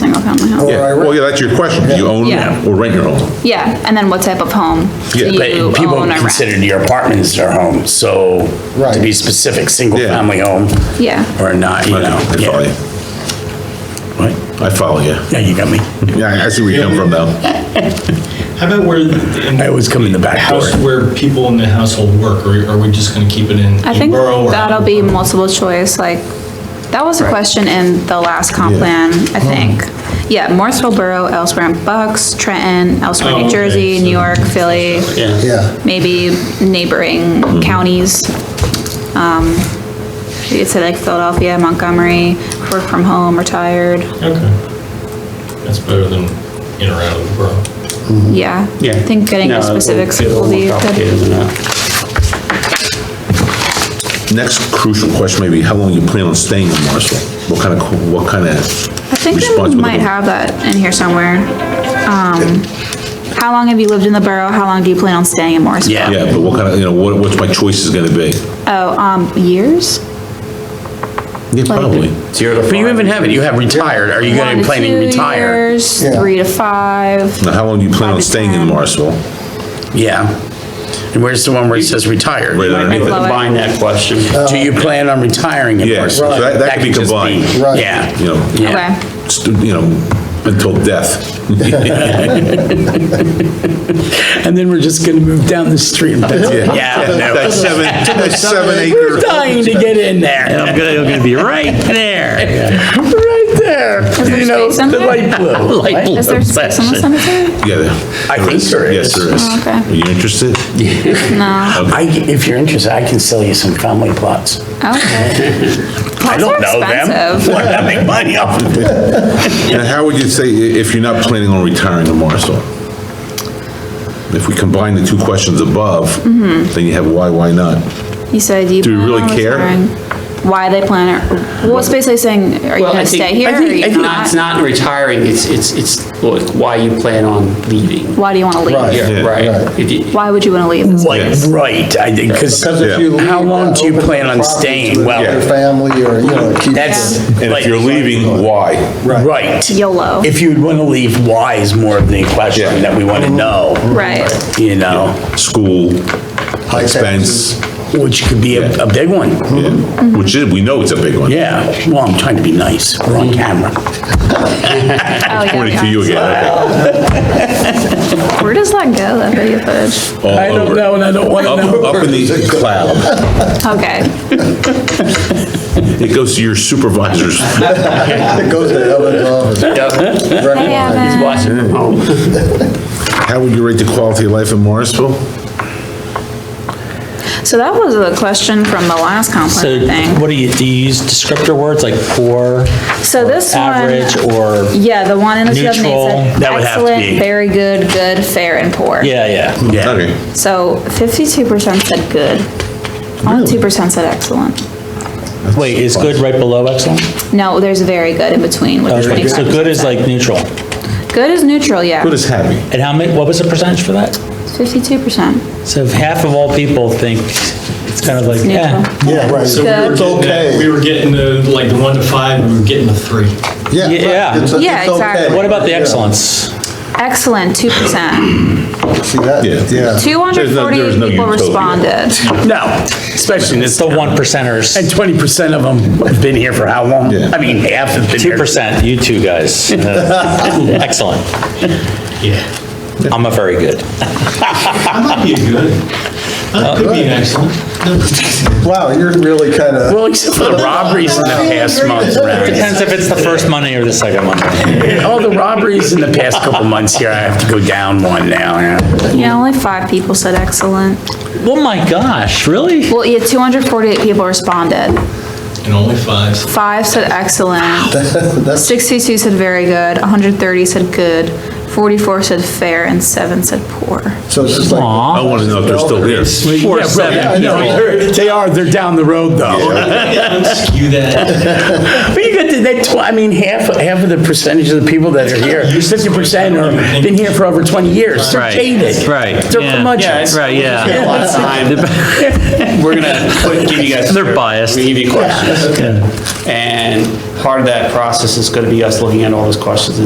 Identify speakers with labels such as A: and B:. A: single-family home?
B: Or I
C: Yeah, well, yeah, that's your question. Do you own
A: Yeah.
C: or rent your home?
A: Yeah, and then what type of home
C: Yeah,
A: do
C: but
A: you
D: But people
A: own or rent?
D: considered your apartments their home, so to
B: Right.
D: be specific, single-family home
A: Yeah,
D: or not, you
C: Okay,
D: know.
C: I follow
D: yeah.
C: you.
D: What?
C: I follow you.
D: Yeah, you got me.
C: Yeah, I- I see where you come from now.
E: How about where, in
D: I
E: the
D: always come in the back door.
E: house, where people in the household work, or are we just gonna keep it in
A: I
E: a
A: think
E: borough? or-
A: that'll be multiple choice, like, that was a question in the last comp plan, I think. Yeah, Morrisville Borough, elsewhere in Bucks, Trenton, elsewhere in
E: Oh,
A: New
E: okay,
A: Jersey,
E: so-
A: New York, Philly,
B: yeah.
A: maybe neighboring counties. Um, You could say like Philadelphia, Montgomery, work from home, retired,
E: Okay. That's better than in or out of the borough.
A: yeah. I think getting the specifics will be good.
C: Next crucial question may be, how long you plan on staying in Marshall? What kind of, what kind of?
A: I think
C: response
A: they
C: would
A: might
C: be?
A: have that in here somewhere. Um, how long have you lived in the borough? How long do you plan on staying in Morrisville?
D: Yeah.
C: Yeah, but what kind of, you know, what, what's my choice is gonna be?
A: Oh, um, years?
C: Yeah, probably.
D: But you even have it, you have retired, are you
A: One
D: gonna be
A: to
D: planning
A: two
D: to retire?
A: years,
B: Yeah.
A: Three to five.
C: Now, how long do you plan
A: Five
C: on
A: to
C: staying in
A: 10.
C: Marshall?
D: Yeah. And where's the one where it says retired?
C: Right underneath it.
A: Combine
D: that question. Do you plan on retiring in
C: Yeah, so
D: person?
C: that, that could be
D: just
C: combined,
B: Uh, Right.
D: Yeah.
C: you know,
D: Yeah.
A: Okay,
C: st- you know, until death.
D: And then we're just gonna move down the street.
C: Yeah.
D: Yeah, no.
C: That seven, that seven
D: We're
C: acre.
D: dying to get in there. I'm gonna, I'm gonna be right there. Right there, you know,
A: space in
D: the
A: there?
D: light blue. light
A: is there
D: blue
A: space in the
D: section.
A: cemetery?
C: Yeah. there-
D: I think there
C: Yes,
D: is.
C: there is.
A: Oh, okay.
C: Are you interested?
D: I, if you're interested, I can sell you some family plots.
A: Okay.
D: I
A: Plots are
D: don't know them.
A: expensive.
D: Why not make money off of it?
C: And how would you say, i- if you're not planning on retiring in Marshall? If we combine the two questions above,
D: Mm-hmm.
C: then you have why, why not?
A: You said you.
C: Do we
A: plan
C: really
A: on
C: care?
A: retiring. Why they plan it? Well, it's basically saying, are you
F: Well, I
A: gonna
F: think-
A: stay here
F: I
A: or are
F: think- I
A: you
F: think It's
A: not?
F: not retiring, it's, it's, it's look, why you plan on leaving.
A: Why do you wanna
B: Right.
A: leave?
B: Yeah.
F: Right. If you-
A: Why would you wanna leave? It's-
D: Like,
C: Yes.
D: right, I think, because
B: Because if you leave
D: how long
B: that
D: do you
B: open
D: plan on
B: property to
D: staying?
B: Your
D: Well,
B: family or, you know, keep.
D: that's.
C: And
D: like-
C: if you're leaving, why?
D: Right.
A: YOLO.
D: If you'd want to leave, why is more of the
C: Yeah.
D: question that we want to know.
A: Mm-hmm. Right. Oh,
D: You know,
C: School, expense,
D: which could be a, a big one.
C: yeah. which is, we know it's a big one.
D: Mm-hmm. Yeah, well, I'm trying to be nice, we're on camera.
A: Oh, yeah,
C: Pointing
A: yeah.
C: to you again, okay.
A: Where does that go, that video footage?
C: All
D: I don't
C: over.
D: know, and I don't want to
C: Up,
D: know.
C: up in the cloud.
A: Okay.
C: It goes to your supervisors.
B: It goes to Evan's office.
A: Hey,
B: Recognize.
A: Evan.
F: Watching from home.
C: How would you rate the quality of life in Morrisville?
A: So that was a question from the last
G: So
A: complaint thing.
G: what do you, do you use descriptor words like poor,
A: So this
G: average,
A: one,
G: or,
A: yeah, the one in the 2008
G: Neutral,
A: said
D: that would have to
A: excellent,
D: be-
A: very good, good, fair, and poor.
G: yeah, yeah.
D: Yeah.
C: Okay.
A: So fifty-two percent said good. Only two percent said excellent.
G: Wait, is good right below excellent?
A: No, there's very good in between, which is
G: Okay, Oh, So good
A: 25%.
G: is like neutral.
A: Good is neutral, yeah,
C: Good as happy.
G: And how many, what was the percentage for that?
A: fifty-two percent.
G: So if half of all people think it's kind of like,
A: Neutral.
G: yeah.
B: Yeah, right.
E: So we were
A: It's
E: getting that-
B: okay.
E: We were getting the, like, the one to five, we were getting the three.
B: Yeah. right.
G: Yeah.
B: It's- it's
A: Yeah, exactly.
B: okay.
G: What about the
B: Yeah.
G: excellence?
A: Excellent, two percent.
B: See that,
C: Yeah.
B: yeah.
A: Two hundred
C: There's no- there's
A: forty-eight
C: no
A: people
C: utopia.
A: responded.
D: No, especially in
G: It's
D: this,
G: the one
D: and
G: percenters,
D: twenty percent of them have been here for how long?
C: Yeah.
D: I mean, half have been
G: two
D: here.
G: percent, you two guys. Uh, Excellent.
E: Yeah.
G: I'm a very good.
E: That might be a good. That could
C: Uh,
E: be an excellent.
B: Wow, you're really kind of.
D: Well, except for the robberies in the past month, right?
G: Depends if it's the first Monday or the second Monday.
D: All the robberies in the past couple months here, I have to go down one now, yeah.
A: Yeah, only five people said excellent.
G: Oh my gosh, really?
A: Well, yeah, two hundred forty-eight people responded.
E: And only fives.
A: Five said excellent,
B: That's
A: sixty-two said very good, hundred thirty said good, forty-four said fair, and seven said poor.
B: So it's just like.
G: Aw.
C: I want to know if they're still here.
D: Four, seven, no, they're- they are, they're down the road though.
E: Unskew that.
D: But you got the that, tw- I mean, half, half of the percentage of the people that are here, fifty percent are, been here for over twenty years, they're
G: Right,
D: jaded.
G: right,
D: They're
G: yeah.
D: curmudgeons.
G: Right,
F: We got a
G: yeah.
F: lot of time. We're gonna put- give you guys.
G: They're biased.
F: We give you questions. And part of that process is gonna be us looking at all those questions